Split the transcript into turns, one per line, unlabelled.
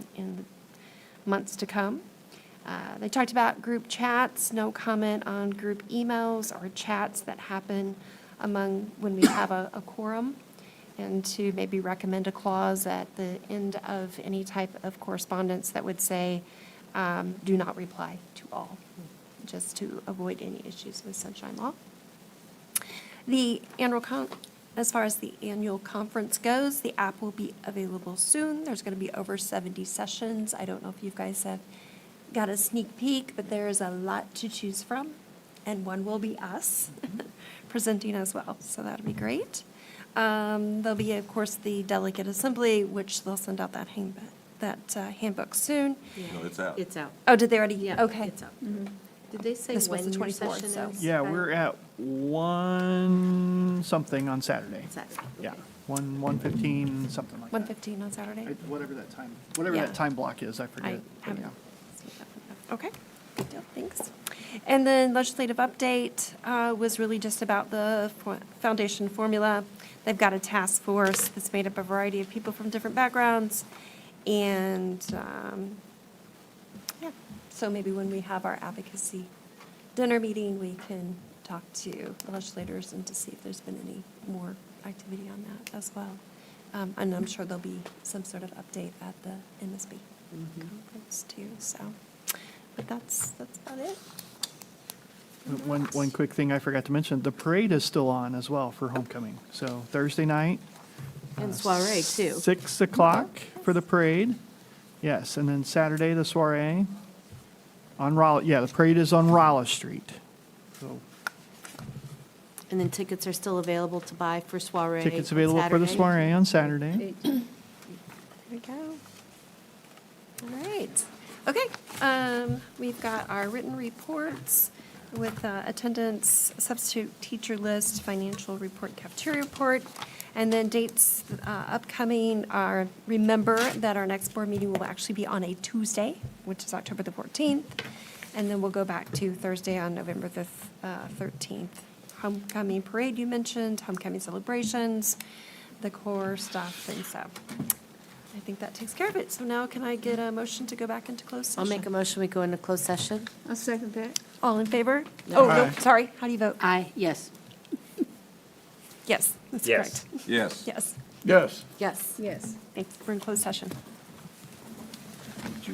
months to come. Uh, They talked about group chats, no comment on group emails or chats that happen among, when we have a a quorum, and to maybe recommend a clause at the end of any type of correspondence that would say, um, do not reply to all, just to avoid any issues with sunshine law. The annual con, as far as the annual conference goes, the app will be available soon. There's going to be over 70 sessions. I don't know if you guys have got a sneak peek, but there is a lot to choose from, and one will be us
Mm-hmm.
presenting as well, so that'll be great. Um, There'll be, of course, the delegate assembly, which they'll send out that handbook, that uh, handbook soon.
No, it's out.
It's out.
Oh, did they already?
Yeah,
Okay.
it's out. Did they say
This was
when
the
your
24th,
session
so-
is?
Yeah, we're at one something on Saturday.
Saturday.
Yeah, one, one fifteen, something like that.
1:15 on Saturday?
I- Whatever that time, whatever
Yeah.
that time block is, I
I
forget. but
haven't.
yeah.
seen that one yet. Okay, good deal, thanks. And then legislative update uh, was really just about the fo- foundation formula. They've got a task force that's made up a variety of people from different backgrounds. And, um, yeah, so maybe when we have our advocacy dinner meeting, we can talk to the legislators and to see if there's been any more activity on that as well. Um, And I'm sure there'll be some sort of update at the MSB conference too, so. But that's, that's about it.
One, one quick thing I forgot to mention, the parade is still on as well for homecoming. So Thursday night.
And
uh,
soiree, too.
Six o'clock for the parade. Yes, and then Saturday, the soiree on Rolla, yeah, the parade is on Rolla Street. So
And then tickets are still available to buy for soiree.
tickets
on
available for the
Saturday.
soiree on Saturday.
There we go. All right. Okay, um, we've got our written reports with uh, attendance, substitute teacher list, financial report, cafeteria report, and then dates uh, upcoming are, remember that our next board meeting will actually be on a Tuesday, which is October the 14th, and then we'll go back to Thursday on November the th- uh, 13th. Homecoming parade you mentioned, homecoming celebrations, the core stuff, and so I think that takes care of it. So now can I get a motion to go back into closed
I'll
session?
make a motion, we go into closed session.
I'll second that.
All in favor?
No.
Oh, no,
Aye.
sorry. How do you vote?
Aye, yes.
Yes, that's
Yes.
correct.
Yes.
Yes,
Yes.
Yes.
Yes.
thanks. We're in closed session.